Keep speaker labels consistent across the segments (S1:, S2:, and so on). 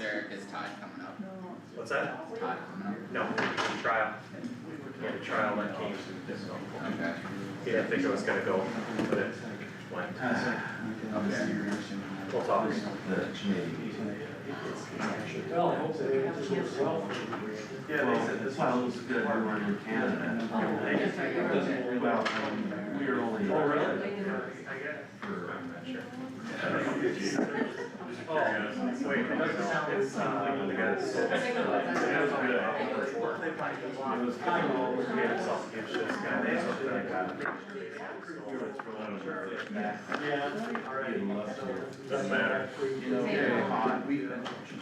S1: Tide coming up,
S2: What's that?
S1: tide coming
S2: No, trial. We had a trial that came, so,
S1: up, okay.
S2: didn't think it was gonna go, but it went. We'll talk.
S3: Well, I hope they just work well.
S4: Yeah, they said this one was good, we were in Canada. They just- it doesn't worry about, um, we were only.
S2: Oh, really? I guess. I'm not sure. Oh, wait, it's, uh, the guy's.
S4: It was kind of all over
S2: We
S4: here.
S2: had a self-conscious guy, they sort of like, uh,
S4: We were throwing it over there.
S3: Yeah, all right.
S4: Even less here.
S2: Doesn't matter.
S4: You know,
S5: Same.
S4: very hot, we,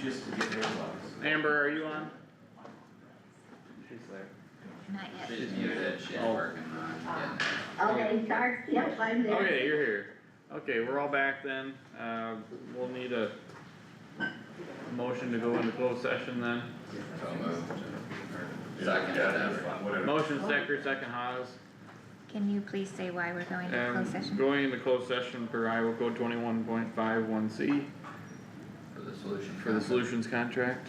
S4: just to get their bucks.
S6: Amber, are you on?
S5: Not yet.
S1: She's muted, she's
S6: Oh.
S1: working on
S7: Okay, sorry, yep, I'm there.
S6: Okay, you're here. Okay, we're all back then. Uh, we'll need a motion to go into closed session then.
S1: it, so moved. Or Second, whatever.
S6: Motion Stecker, second Haas.
S5: Can you please say why we're going to closed
S6: And
S5: session?
S6: going into closed session per Iowa Code twenty-one point five one C
S1: For the solution.
S6: for the
S1: conference.
S6: solutions contract.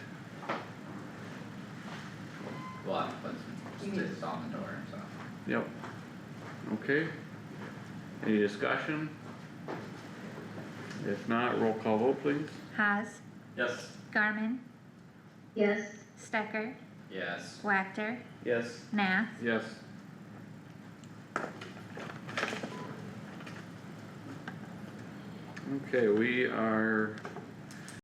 S1: We'll have to put some sticks on the door, so.
S6: Yep. Okay. Any discussion? If not, roll call vote please.
S5: Haas,
S1: Yes.
S5: Garmin,
S7: Yes.
S5: Stecker,
S1: Yes.
S5: Wactor,
S6: Yes.
S5: Nath.
S6: Yes. Okay, we are